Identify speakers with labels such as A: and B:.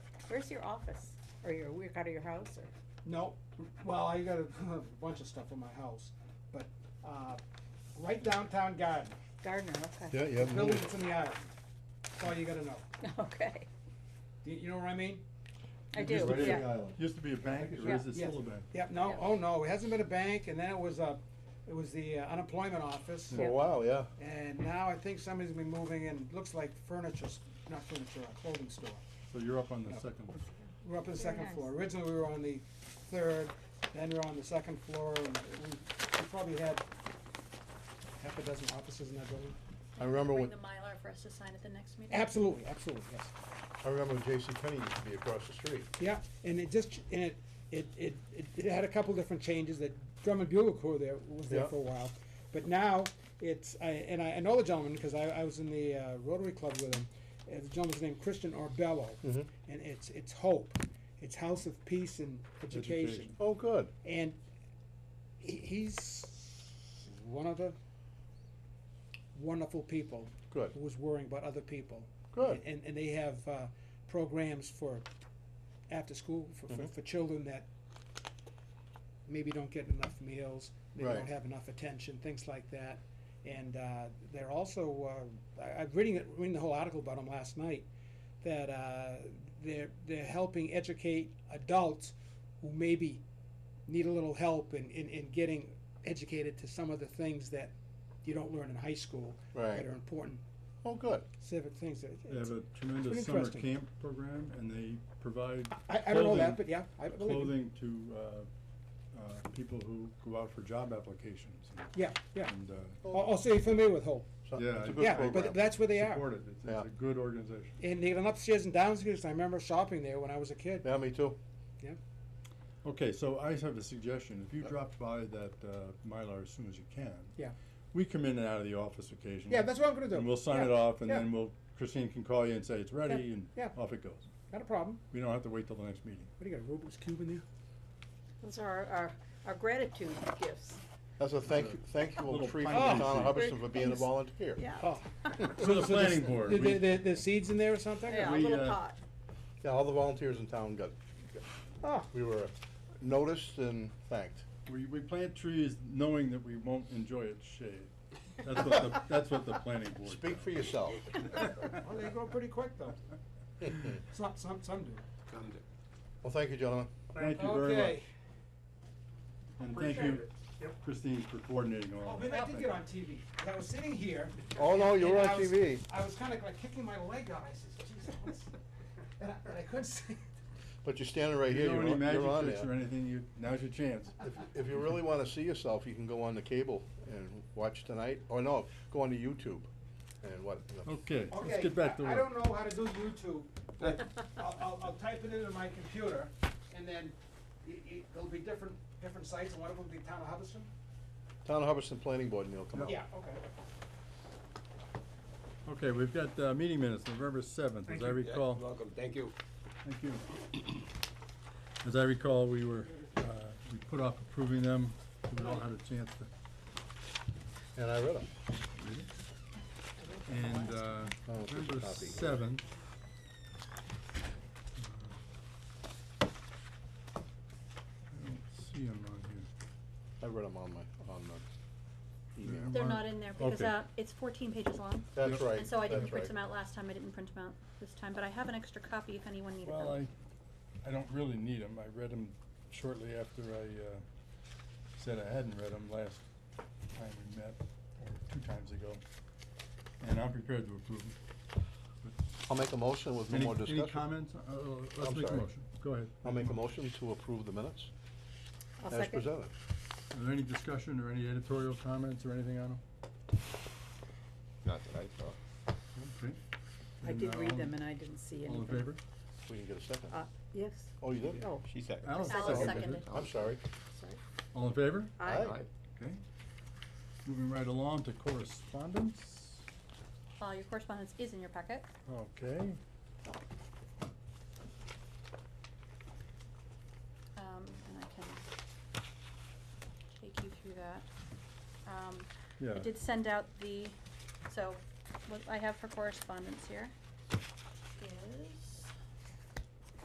A: Where's your office? Or your work out of your house or?
B: No, well, I got a bunch of stuff in my house, but, uh, right downtown garden,
A: Gardner, okay.
C: Yeah, you
B: the
C: haven't
B: building
C: moved.
B: that's in the island, that's all you gotta know,
A: Okay,
B: you, you know what I mean?
A: I
C: Just
A: do,
C: right in
A: yeah.
C: the island.
D: Used to be a bank, or is it still a bank?
B: Yep, no,
A: Yeah.
B: oh no, it hasn't been a bank, and then it was a, it was the uh, unemployment office,
C: For a while, yeah.
B: and now I think somebody's been moving in, looks like furniture, s- not furniture, a clothing store.
D: So you're up on the second one.
B: We're up on the
A: Very
B: second
A: nice.
B: floor, originally we were on the third, then we were on the second floor, and we, we probably had half a dozen offices in that building.
C: I remember when,
E: Bring the Mylar for us to sign at the next meeting?
B: Absolutely, absolutely, yes.
C: I remember when Jason Penney used to be across the street.
B: Yeah, and it just, ch- and it, it, it, it- it had a couple different changes, that Drummond Bugle Corps there, was there
C: Yeah.
B: for a while. But now, it's, I, and I, I know the gentleman, because I, I was in the uh, Rotary Club with him, Uh, the gentleman's named Christian Orbello.
C: Mhm.
B: And it's, it's Hope, it's House of Peace and Education.
D: Education.
C: Oh, good.
B: And he, he's one of the wonderful people.
C: Good.
B: Who was worrying about other people.
C: Good.
B: And, and they have, uh, programs for after school, for, for,
C: Mhm.
B: for children that maybe don't get enough meals, maybe
C: Right.
B: don't have enough attention, things like that. And, uh, they're also, uh, I, I'm reading it, reading the whole article about them last night, that, uh, they're, they're helping educate adults who maybe need a little help in, in, in getting educated to some of the things that you don't learn in high school that
C: Right.
B: are important
C: Oh, good.
B: civic things. that-
D: They have
B: it's-
D: a
B: pretty
D: tremendous summer
B: interesting.
D: camp program, and they provide
B: I, I don't know that,
D: clothing-
B: but yeah, I believe it.
D: clothing to, uh, uh, people who go out for job applications. and-
B: Yeah, yeah.
D: And, uh,
B: Al- Also, you're familiar with Hope.
C: So-
D: Yeah,
C: It's a
D: I-
C: good
B: Yeah,
C: program.
B: but that's where they
D: support
B: are.
D: it, it's,
C: Yeah.
D: it's a good organization.
B: And they got an upstairs and downstairs. I remember shopping there when I was a kid.
C: Yeah, me too.
D: Okay, so I have a suggestion, if you drop by that, uh, Mylar as soon as you can.
B: Uh-huh. Yeah.
D: We come in and out of the office occasionally.
B: Yeah, that's what I'm gonna do.
D: And we'll sign
B: Yeah,
D: it off, and
B: yeah.
D: then we'll, Christine can call you and say it's ready, and
B: yeah.
D: off it goes.
B: Not a problem.
D: We don't have to wait till the next meeting.
B: What do you got, a Rubik's Cube in there?
A: Those are our, our, our gratitude gifts.
C: That's a thank you, thank you
D: Little
C: will treat for
D: tiny
C: Donna
D: thing.
C: Hubbardston for being a
A: Thanks.
C: volunteer.
A: Yeah.
B: Oh.
D: So the
B: so
D: planning
B: s-
D: board,
B: The,
D: we-
B: the, the- the seeds in there or something?
A: Yeah, a
D: We,
A: little
D: uh,
A: pot.
C: Yeah, all the volunteers in town got, got-
B: Oh,
C: we were noticed and thanked.
D: We, we plant trees knowing that we won't enjoy its shade. That's what the, that's what the planning board.
C: Speak for
D: does.
C: yourself.
B: well, they grow pretty quick though. Some, some, some do.
C: Well, thank you, gentlemen.
D: Thank you very much.
B: Okay.
D: And thank
B: Appreciate
D: you, Christine, for coordinating all
B: Oh,
D: that.
B: man, I did get on TV. 'cause I was sitting here.
C: Oh, no, you
B: and
C: were on
B: I was-
C: TV.
B: I was kinda like kicking my leg out. I says, Jesus, what's-" and I, and I couldn't see.
C: But you're standing right
D: You
C: here,
D: know
C: you're
D: any
C: on,
D: magic
C: you're on
D: tricks or
C: there.
D: anything, you, now's your chance.
C: If, if you really wanna see yourself, you can go on the cable and watch tonight, or no, go on to YouTube and what,
D: Okay,
B: Okay,
D: let's get back to
B: I- I
D: work.
B: don't know how to do YouTube, but I'll, I'll, I'll type it into my computer, and then it, it, there'll be different, different sites, and one of them will be Town of Hubbardston?
C: Town of Hubbardston Planning Board, and you'll come up.
B: Yeah, okay.
D: Okay, we've got, uh, meeting minutes, November seventh, as I recall.
F: Welcome, thank you.
D: Thank you. As I recall, we were, uh, we put off approving them, we all had a chance to,
C: And I read them.
D: and, uh,
C: Oh, there's a
D: November
C: copy here.
D: seventh. I don't see them on here.
C: I read them on my, on the email.
E: They're not in there because
D: Okay.
E: uh, it's 14 pages long.
C: That's
D: Yep.
C: right,
E: And so I didn't
C: that's
E: print
C: right.
E: them out last time. I didn't print them out this time, but I have an extra copy if anyone needed
D: Well,
E: them.
D: I, I don't really need them, I read them shortly after I, uh, said I hadn't read them last time we met, or two times ago. And I'm prepared to approve them. But
C: I'll make a motion with no
D: Any,
C: more discussion.
D: any comments? Uh, Let's
C: I'm
D: make a
C: sorry.
D: motion. Go ahead.
C: I'll make a motion to approve the minutes
A: I'll
C: as
A: second.
C: presented.
D: Are there any discussion or any editorial comments or anything on them?
F: Not that I saw.
D: Okay.
A: I
D: Then,
A: did
D: uh,
A: read
D: all-
A: them and I didn't see anything.
D: All in favor?
C: We didn't get a second.
A: Uh, yes,
C: Oh, you did?
A: oh,
F: She said.
D: Alan
E: Alan
D: seconded it.
E: seconded.
C: I'm sorry.
A: sorry.
D: All in favor?
A: I,
C: Aye.
D: Okay. Moving right along to correspondence.
E: Uh, Your correspondence is in your packet.
D: Okay.
E: Um, and I can take you through that. Um,
D: Yeah.
E: I did send out the, so what I have for correspondence here